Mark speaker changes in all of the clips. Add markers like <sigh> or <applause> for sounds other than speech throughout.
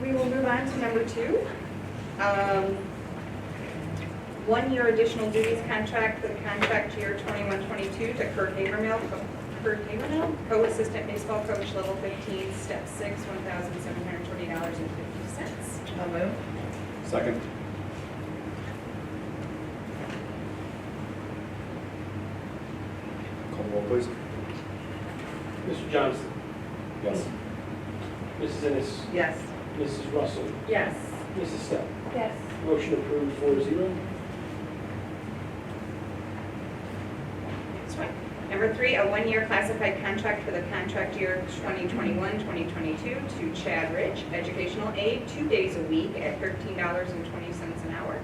Speaker 1: We will move on to number two. Um, One-year additional duties contract for the contract year 21-22 to Kurt Havermill, co- Kurt Havermill, co-assistant baseball coach, level 15, step 6, $1,720.50.
Speaker 2: So moved.
Speaker 3: Second. Call roll, please.
Speaker 4: Mr. Johnson,
Speaker 3: Yes.
Speaker 4: Mrs. Ennis,
Speaker 2: Yes.
Speaker 4: Mrs. Russell,
Speaker 1: Yes.
Speaker 4: Mrs. Step.
Speaker 1: Yes.
Speaker 4: Motion approved four zero.
Speaker 1: That's right. Number three, a one-year classified contract for the contract year 2021-2022 to Chad Rich, educational aide, two days a week at $13.20 an hour.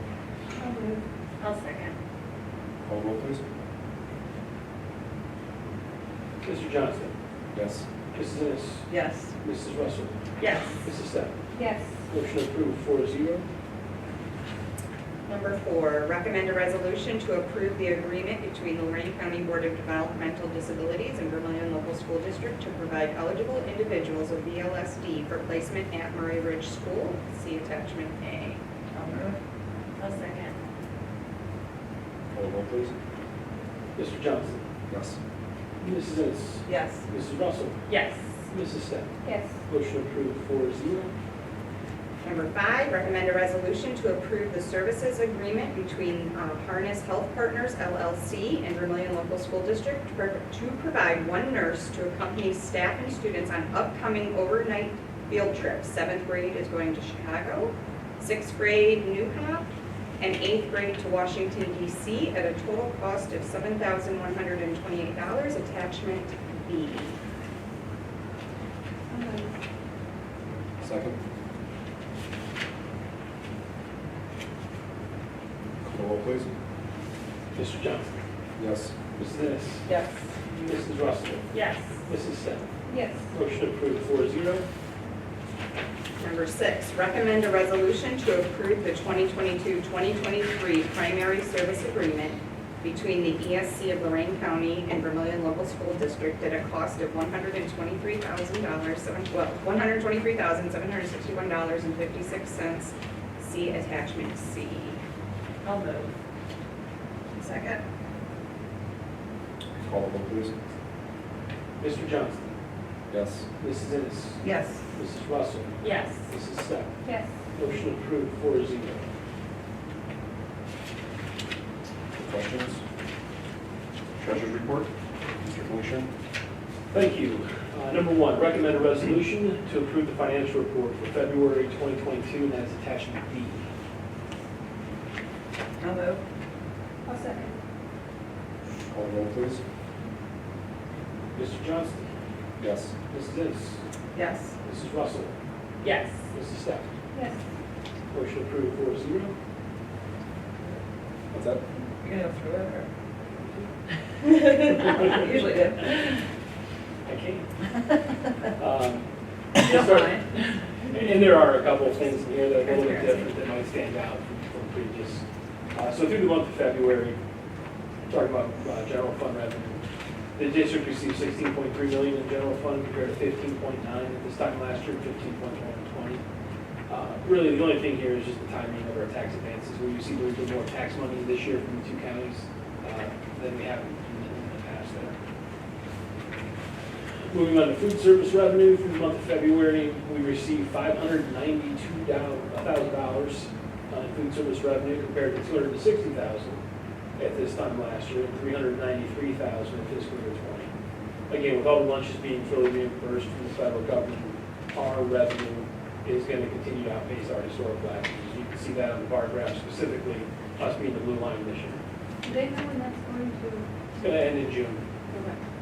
Speaker 1: I'll second.
Speaker 3: Call roll, please.
Speaker 4: Mr. Johnson,
Speaker 3: Yes.
Speaker 4: Mrs. Ennis,
Speaker 2: Yes.
Speaker 4: Mrs. Russell,
Speaker 1: Yes.
Speaker 4: Mrs. Step.
Speaker 1: Yes.
Speaker 4: Motion approved four zero.
Speaker 1: Number four, recommend a resolution to approve the agreement between Lorraine County Board of Developmental Disabilities and Vermillion Local School District to provide eligible individuals with VLSD for placement at Murray Ridge School. See attachment A.
Speaker 2: So moved.
Speaker 1: I'll second.
Speaker 3: Call roll, please.
Speaker 4: Mr. Johnson,
Speaker 3: Yes.
Speaker 4: Mrs. Ennis,
Speaker 2: Yes.
Speaker 4: Mrs. Russell,
Speaker 1: Yes.
Speaker 4: Mrs. Step.
Speaker 1: Yes.
Speaker 4: Motion approved four zero.
Speaker 1: Number five, recommend a resolution to approve the services agreement between uh, Harness Health Partners LLC and Vermillion Local School District to pro- to provide one nurse to accompany staff and students on upcoming overnight field trips. Seventh grade is going to Chicago, sixth grade New Hop, and eighth grade to Washington DC at a total cost of $7,128. Attachment B.
Speaker 3: Second. Call roll, please.
Speaker 4: Mr. Johnson,
Speaker 3: Yes.
Speaker 4: Mrs. Ennis,
Speaker 2: Yes.
Speaker 4: Mrs. Russell,
Speaker 1: Yes.
Speaker 4: Mrs. Step.
Speaker 1: Yes.
Speaker 4: Motion approved four zero.
Speaker 1: Number six, recommend a resolution to approve the 2022-2023 primary service agreement between the ESC of Lorraine County and Vermillion Local School District at a cost of $123,000, seven- well, $123,761.56. See attachment C.
Speaker 2: I'll move.
Speaker 1: Second.
Speaker 3: Call roll, please.
Speaker 4: Mr. Johnson,
Speaker 3: Yes.
Speaker 4: Mrs. Ennis,
Speaker 2: Yes.
Speaker 4: Mrs. Russell,
Speaker 1: Yes.
Speaker 4: Mrs. Step.
Speaker 1: Yes.
Speaker 4: Motion approved four zero.
Speaker 3: Questions? Treasurer's report. Mr. Commissioner.
Speaker 4: Thank you. Uh, Number one, recommend a resolution to approve the financial report for February 2022, and that is attachment B.
Speaker 2: I'll move.
Speaker 3: Call roll, please.
Speaker 4: Mr. Johnston,
Speaker 3: Yes.
Speaker 4: Mrs. Ennis,
Speaker 2: Yes.
Speaker 4: Mrs. Russell,
Speaker 1: Yes.
Speaker 4: Mrs. Steph.
Speaker 1: Yes.
Speaker 4: Motion approved four zero.
Speaker 3: What's that?
Speaker 2: You're gonna go through <laughs> it or? Usually do.
Speaker 4: I can't.
Speaker 1: <laughs>
Speaker 4: Um, start- And there are a couple of things in here that are a little bit different that might stand out from previous. Uh, So through the month of February, talking about uh, general fund revenue, the district received 16.3 million in general fund compared to 15.9 at this time last year, 15.1 in 20. Uh, Really, the only thing here is just the timing of our tax advances. We received a little bit more tax money this year from the two counties uh, than we have in in the past there. Moving on to food service revenue, for the month of February, we received five hundred ninety-two thousand dollars in food service revenue compared to two hundred and sixty thousand at this time last year, and three hundred ninety-three thousand in fiscal year twenty. Again, with all the lunches being fully reimbursed from the federal government, our revenue is going to continue to outpace our historical averages. You can see that on the bar graph specifically, us being the blue line this year.
Speaker 5: Do they know when that's going to?
Speaker 4: It's going to end in June.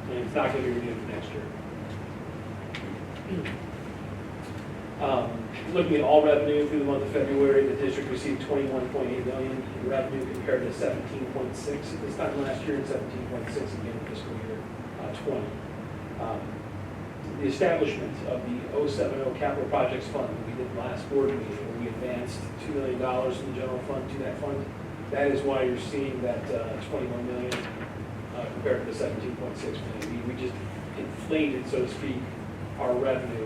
Speaker 4: And it's not going to be renewed for next year. Um, Looking at all revenue through the month of February, the district received 21.8 million in revenue compared to 17.6 at this time last year and 17.6 again in fiscal year uh, 20. Um, The establishment of the 070 Capital Projects Fund that we did last board meeting, where we advanced $2 million from the general fund to that fund. That is why you're seeing that uh, 21 million uh, compared to the 17.6 million. We- We just inflated, so to speak, our revenue